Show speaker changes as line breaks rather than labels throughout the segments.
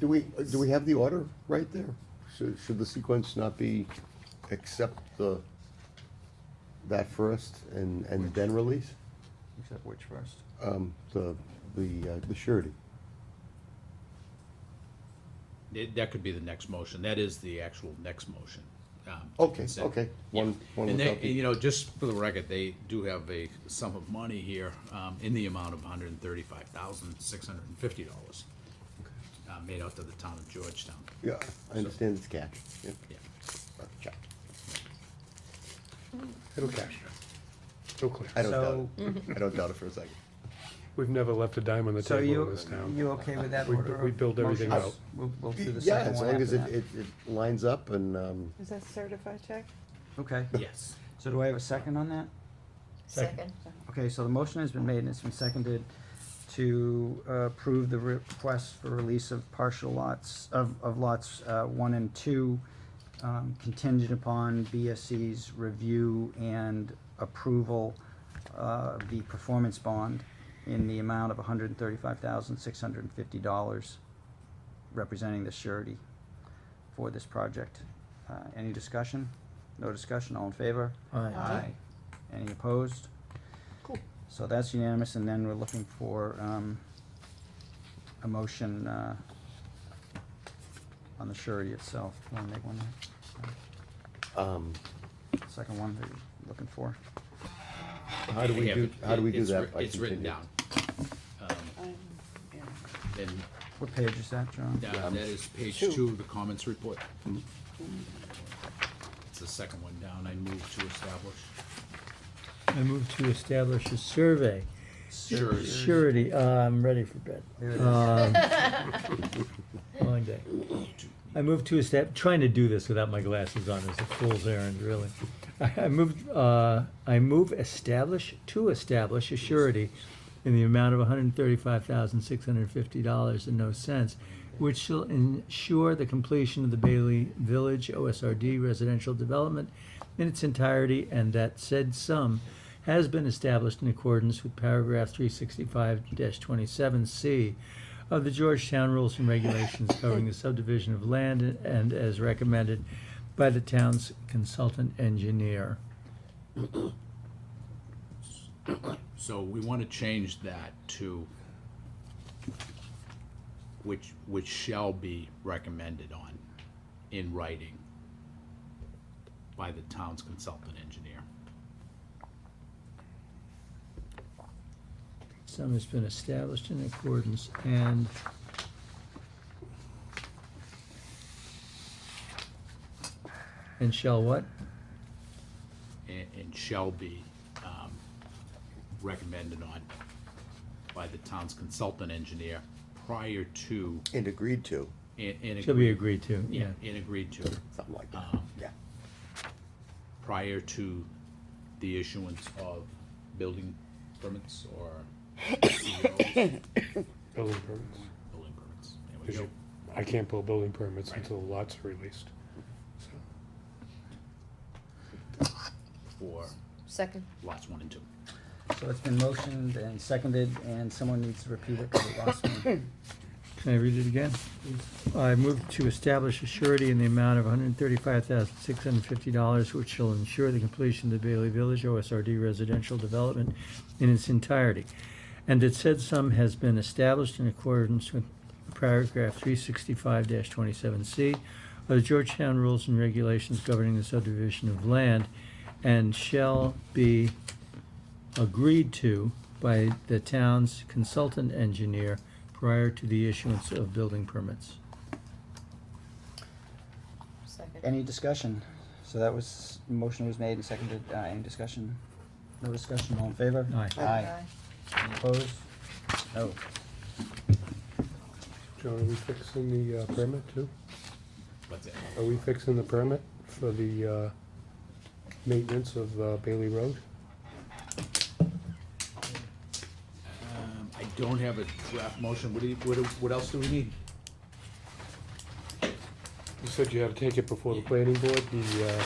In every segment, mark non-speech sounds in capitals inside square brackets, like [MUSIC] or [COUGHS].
Do we, do we have the order right there? Should, should the sequence not be accept the, that first and, and then release?
Except which first?
Um, the, the, uh, the surety.
It- That could be the next motion. That is the actual next motion. um, to
Okay,
consent.
okay, Oh, one, one
And
without
they,
the,
you know, just for the record, they do have a sum of money here um, in the amount of hundred and thirty-five thousand, six hundred and fifty dollars uh, made out to the town of Georgetown.
yeah, I understand it's cash, yeah,
Yeah.
uh, check. It'll cash.
No clear.
I don't doubt it, I don't doubt it for a second.
We've never left a dime on the
So
table in
you,
this town.
you okay with that
We-
order?
we
of
build everything
motions?
out.
We'll, we'll do the
Yeah,
second
as
one
long as
after
it,
that.
it, it lines up and, um,
Is that certified check?
Okay,
Yes.
so do I have a second on that?
Second.
Okay, so the motion has been made and it's been seconded to uh, approve the request for release of partial lots, of, of lots uh, one and two, um, contingent upon BSC's review and approval uh, of the performance bond in the amount of hundred and thirty-five thousand, six hundred and fifty dollars, representing the surety for this project. Uh, Any discussion? No discussion, all in favor? Aye. Any opposed? So that's unanimous, and then we're looking for, um, a motion, uh, on the surety itself. Want to make one,
um,
second one that you're looking for?
how do we
Yeah,
do,
but
how do we
it-
do
it's
that?
writ-
by
It's written
continuing?
down. Um, And
What page is that, John?
that that is page two of the comments report.
Mm-hmm.
It's the second one down. I move to establish.
I move to establish a survey.
Surety.
Surety, uh, I'm ready for bed.
There it is.
Um, Long day. I move to estab, trying to do this without my glasses on is a fool's errand, really. I moved, uh, I move establish, to establish a surety in the amount of hundred and thirty-five thousand, six hundred and fifty dollars and no cents, which shall ensure the completion of the Bailey Village OSRD residential development in its entirety, and that said sum has been established in accordance with paragraph three sixty-five twenty-seven C of the Georgetown Rules and Regulations covering the subdivision of land and as recommended by the town's consultant engineer.
So we want to change that to which, which shall be recommended on in writing by the town's consultant engineer.
Sum has been established in accordance and and shall what?
And, and shall be, um, recommended on by the town's consultant engineer prior to,
And agreed to,
and, and.
Shall be agreed to,
Yeah,
yeah.
and agreed to,
something like
Uh-huh.
that,
um,
yeah.
prior to the issuance of building permits or [COUGHS] E COs.
Building permits.
Building permits. There we
Because
go.
you- I can't pull building permits until the lots are released.
For
Second.
lots one and two.
So it's been motioned and seconded, and someone needs to repeat it, 'cause it lost me.
Can I read it again? I move to establish a surety in the amount of hundred and thirty-five thousand, six hundred and fifty dollars, which shall ensure the completion of the Bailey Village OSRD residential development in its entirety. And that said sum has been established in accordance with paragraph three sixty-five twenty-seven C of the Georgetown Rules and Regulations governing the subdivision of land and shall be agreed to by the town's consultant engineer prior to the issuance of building permits.
Second.
Any discussion? So that was, motion was made and seconded, uh, any discussion? No discussion, all in favor?
Aye.
Aye. Any Opposed? No.
John, are we fixing the uh, permit too?
What's it?
Are we fixing the permit for the uh, maintenance of uh, Bailey Road?
Um, I don't have a draft motion. What do you, what, do- what else do we need?
You said you had to take it before the planning board. The, uh,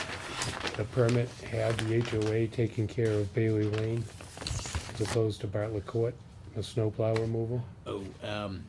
the permit had the HOA taking care of Bailey Lane as opposed to Bartlett Court, the snowplow removal.
Oh, um,